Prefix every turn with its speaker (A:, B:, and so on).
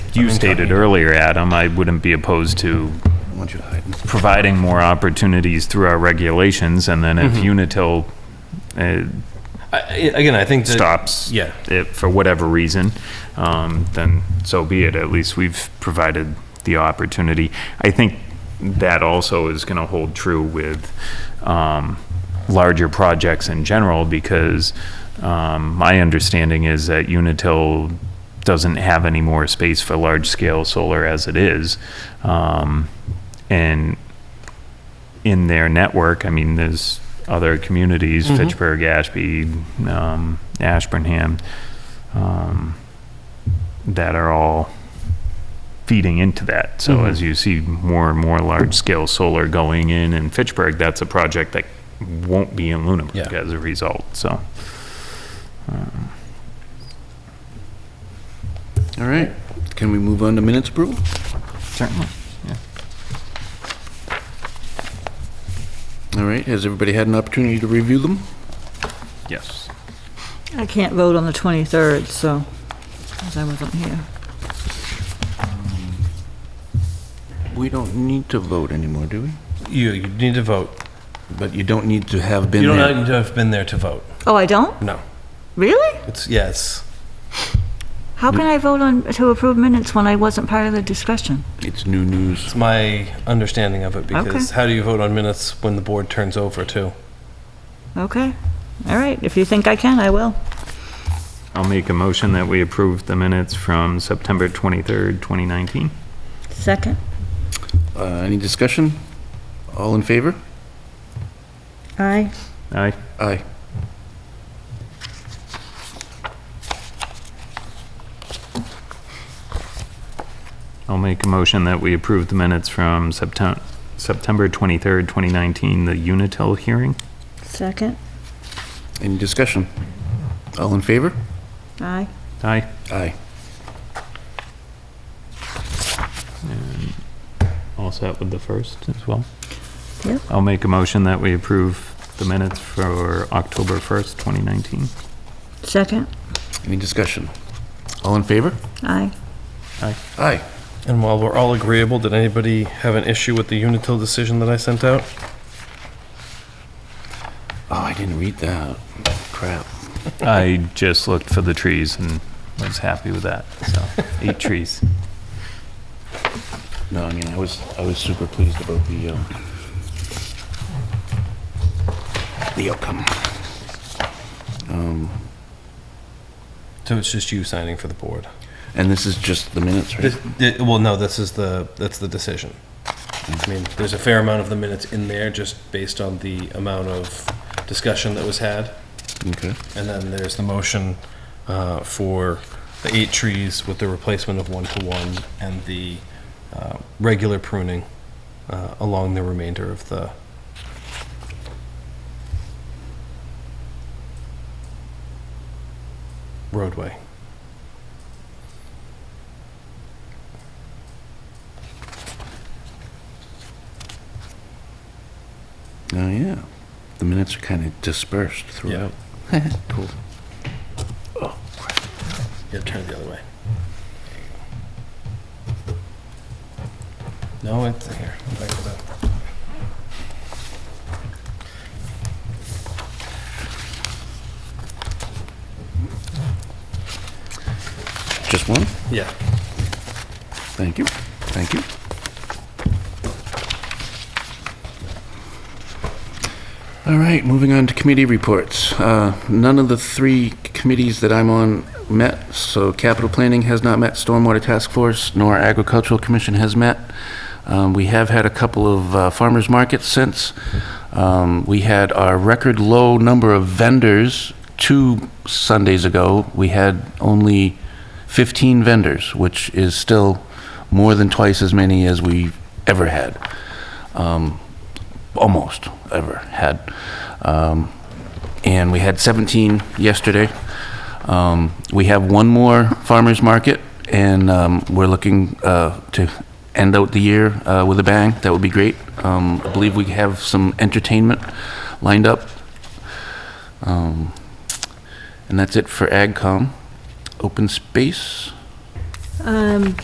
A: you stated earlier, Adam, I wouldn't be opposed to
B: I want you to hide.
A: providing more opportunities through our regulations, and then if Unitil uh,
C: I- I- Again, I think that.
A: stops
C: Yeah.
A: it for whatever reason, um, then so be it. At least we've provided the opportunity. I think that also is going to hold true with um, larger projects in general because um, my understanding is that Unitil doesn't have any more space for large scale solar as it is. Um, and in their network. I mean, there's other communities, Fitchburg, Ashby, um, Ashburnham, um, that are all feeding into that. So as you see more and more large scale solar going in in Fitchburg, that's a project that won't be in Lunenburg
C: Yeah.
A: as a result. So
B: All right, can we move on to minutes approval?
A: certainly.
B: All right, has everybody had an opportunity to review them?
A: Yes.
D: I can't vote on the 23rd, so, because I wasn't here.
B: We don't need to vote anymore, do we?
C: You, you need to vote.
B: But you don't need to have been
C: You
B: there.
C: don't need to have been there to vote.
D: Oh, I don't?
C: No.
D: Really?
C: It's, yes.
D: How can I vote on, to approve minutes when I wasn't part of the discussion?
B: It's new news.
C: It's my understanding of it because how do you vote on minutes when the board turns over too?
D: Okay, all right, if you think I can, I will.
A: I'll make a motion that we approve the minutes from September 23rd, 2019.
D: Second?
B: Uh, Any discussion? All in favor?
D: Aye.
A: Aye.
B: Aye.
A: I'll make a motion that we approve the minutes from Septem- September 23rd, 2019, the Unitil hearing.
D: Second?
B: Any discussion? All in favor?
D: Aye.
A: Aye.
B: Aye.
A: All set with the first as well?
D: Yep.
A: I'll make a motion that we approve the minutes for October 1st, 2019.
D: Second?
B: Any discussion? All in favor?
D: Aye.
B: Aye.
C: And while we're all agreeable, did anybody have an issue with the Unitil decision that I sent out?
B: Oh, I didn't read that. Crap.
A: I just looked for the trees and was happy with that, so, eight trees.
B: No, I mean, I was, I was super pleased about the, uh, the outcome. Um,
C: So it's just you signing for the board?
B: And this is just the minutes, right?
C: This, thi- well, no, this is the, that's the decision. I mean, there's a fair amount of the minutes in there just based on the amount of discussion that was had.
B: Okay.
C: And then there's the motion uh, for the eight trees with the replacement of one-to-one and the uh, regular pruning uh, along the remainder of the, roadway.
B: Oh, yeah. The minutes are kind of dispersed throughout. Cool.
C: Yeah, turn it the other way. No, it's here. I'm back to that.
B: Just one?
C: Yeah.
B: Thank you. Thank you. All right, moving on to committee reports. Uh, None of the three committees that I'm on met, so capital planning has not met, stormwater task force, nor agricultural commission has met. Um, We have had a couple of uh, farmers markets since. Um, We had our record low number of vendors two Sundays ago. We had only 15 vendors, which is still more than twice as many as we ever had Um, almost ever had. Um, and we had 17 yesterday. Um, we have one more farmers market, and um, we're looking uh, to end out the year uh, with a bang. That would be great. Um, I believe we have some entertainment lined up. Um, and that's it for AgCom. Open space.
D: Um,